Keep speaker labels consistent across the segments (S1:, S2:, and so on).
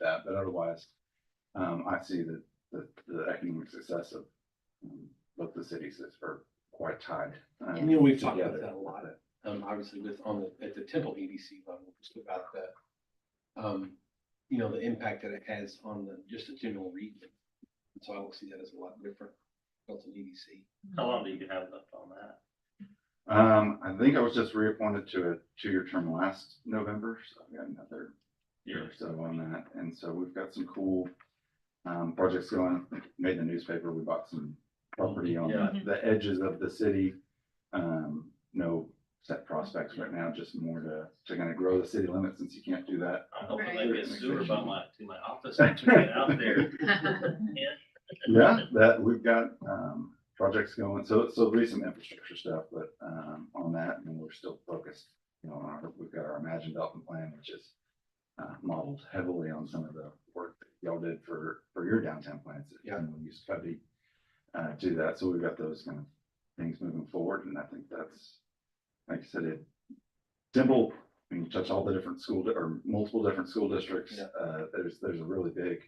S1: that, but otherwise, um, I see that the, the economic success of um, both the cities is are quite tied. um,
S2: You know, we've talked about
S1: together.
S2: that a lot, um, obviously with, on the, at the Temple EDC level, just about the, um, you know, the impact that it has on the, just the general region. And So I will see that as a lot different, built in EDC.
S3: How long do you have left on that?
S1: Um, I think I was just reappointed to a two-year term last November, so I've got another year or so on that. And so we've got some cool um, projects going. Made the newspaper. We bought some property on
S3: Yeah.
S1: the- the edges of the city. Um, no set prospects right now, just more to, to kind of grow the city limits since you can't do that.
S3: I'm hoping
S1: Right.
S3: they get sewer by my, to my office and turn it out there.
S1: Yeah, that we've got um, projects going. So, so there'll be some infrastructure stuff, but um, on that, and we're still focused. You know, on our, we've got our Imagine Dalton plan, which is uh, modeled heavily on some of the work that y'all did for, for your downtown plans.
S2: Yeah.
S1: And we use Cubby uh, to do that. So we've got those kind of things moving forward. And I think that's, like I said, it, Temple, I mean, touch all the different school di- or multiple different school districts.
S2: Yeah.
S1: Uh, there's, there's a really big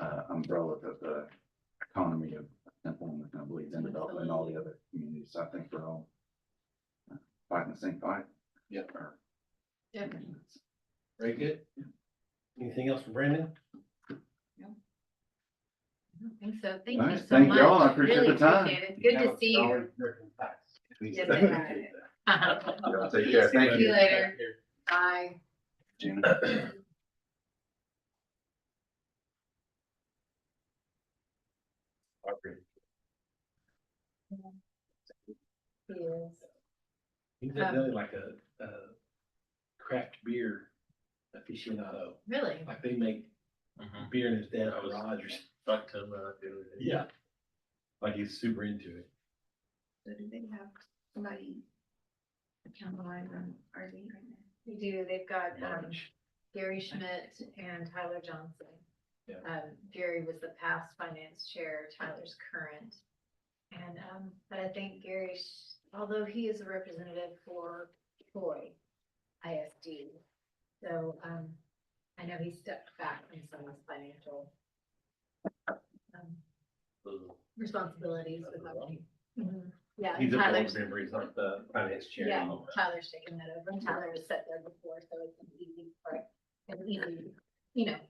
S1: uh, umbrella that the economy of Temple and kind of bleeds into Dalton and all the other communities. So I think we're all uh, fighting the same fight.
S2: Yeah.
S1: Or-
S4: Yeah.
S2: Very good. Anything else for Brandon?
S4: I don't think so. Thank
S1: All
S4: you
S1: right,
S4: so
S1: thank
S4: much.
S1: y'all. I appreciate
S4: Really
S1: the time.
S4: appreciate it. Good
S2: Now
S4: to
S2: it's
S4: see you.
S2: solid written facts.
S4: Yes,
S2: Appreciate
S4: Uh-huh.
S1: Yeah, Take care.
S4: Thank
S1: Thank
S4: you
S1: you.
S4: later. Bye.
S1: Gina.
S2: that. He's
S4: Um,
S2: really like a, a craft beer aficionado.
S4: Really?
S2: Like they make
S3: Mhm.
S2: beer in his dad
S3: I was-
S2: garage or something.
S3: Fuck to the. dude.
S2: Yeah. Like he's super into it.
S5: So do they have somebody accountable on RV right now?
S4: We do. They've got um,
S2: Large.
S4: Gary Schmidt and Tyler Johnson.
S2: Yeah.
S4: Um, Gary was the past finance chair, Tyler's current. And, um, but I think Gary, Sch- although he is a representative for Troy ISD. So, um, I know he stepped back from some of his financial um,
S3: Ooh.
S4: responsibilities with
S2: That's
S4: our
S2: a lot.
S4: team. Mhm. Yeah,
S2: He's a board
S4: Tyler's,
S2: member, he's not the finance chair.
S4: yeah,
S2: anymore.
S4: Tyler's taken that over, and Tyler was set there before, so it's an easy, part- an easy, you know,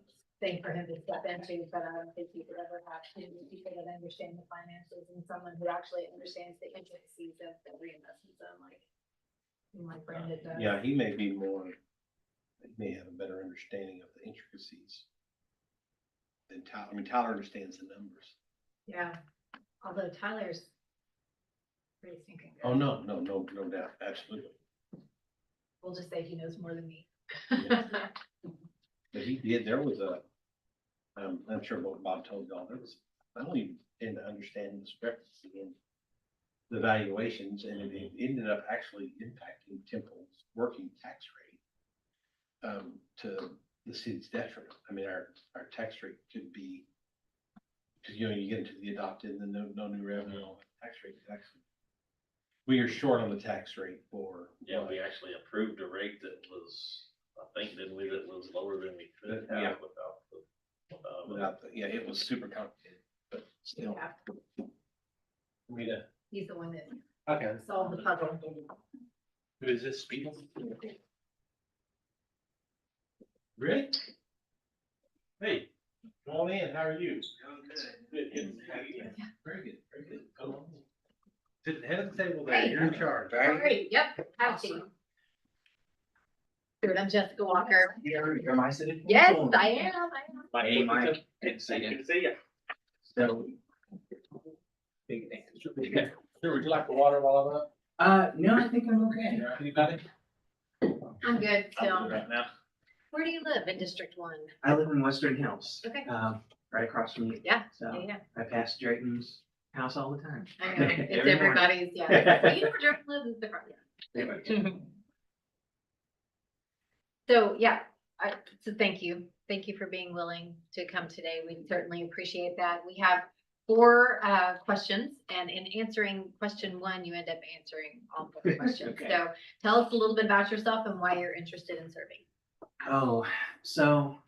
S4: thing for him to step into, but I don't think he could ever have to, people that understand the finances and someone who actually understands the intricacies of the reinvestment zone, like, like Brandon does.
S2: Yeah, he may be more, he may have a better understanding of the intricacies. than Tyler, I mean, Tyler understands the numbers.
S4: Yeah, although Tyler's pretty stinking
S2: Oh,
S4: good.
S2: no, no, no, no doubt, absolutely.
S4: We'll just say he knows more than me.
S2: But he did, there was a, um, I'm sure what Bob told y'all, there was, I don't even tend to understand the discrepancy in the valuations, and it- it ended up actually impacting Temple's working tax rate um, to the city's detriment. I mean, our, our tax rate could be, because, you know, you get into the adopted, and then no, no new revenue, all that tax rate, is actually. We are short on the tax rate for.
S3: Yeah, we actually approved a rate that was, I think, didn't we, that was lower than we could
S2: Yeah.
S3: have without the. uh, without-
S2: Without, the- yeah, it was super complicated, but still.
S4: Yeah,
S2: I mean, uh,
S4: He's the one that
S2: Okay.
S4: solved the puzzle.
S2: Who is this speaking? Rick? Hey, come on in, how are you? Good, good. How you been? Very good, very good. Come on. in. Sit at the head of the table there,
S4: Hey.
S2: you're in charge,
S4: All
S2: right?
S4: right, yep, have to. Dude, I'm Jessica Walker.
S6: You're my city.
S4: Yes, I am, I am.
S6: Hey, Mike.
S3: Good to see you. Good to see you.
S6: So.
S2: Sure, would you like the water while I'm up?
S6: Uh, no, I think I'm okay.
S2: Anybody?
S4: I'm good,
S3: I'm
S4: so.
S3: good Right now.
S4: Where do you live in District One?
S6: I live in Western Hills.
S4: Okay.
S6: Um, right across from you.
S4: Yeah,
S6: So
S4: Yeah,
S6: I pass Drayton's house all the time.
S4: I know, it's
S6: Every
S4: everybody's,
S6: morning.
S4: yeah. Well, You never drive, live in the front, yeah.
S6: They might-
S4: So, yeah, I, so thank you. Thank you for being willing to come today. We certainly appreciate that. We have four uh, questions, and in answering question one, you end up answering all four questions.
S6: Okay.
S4: So tell us a little bit about yourself and why you're interested in serving.
S6: Oh, so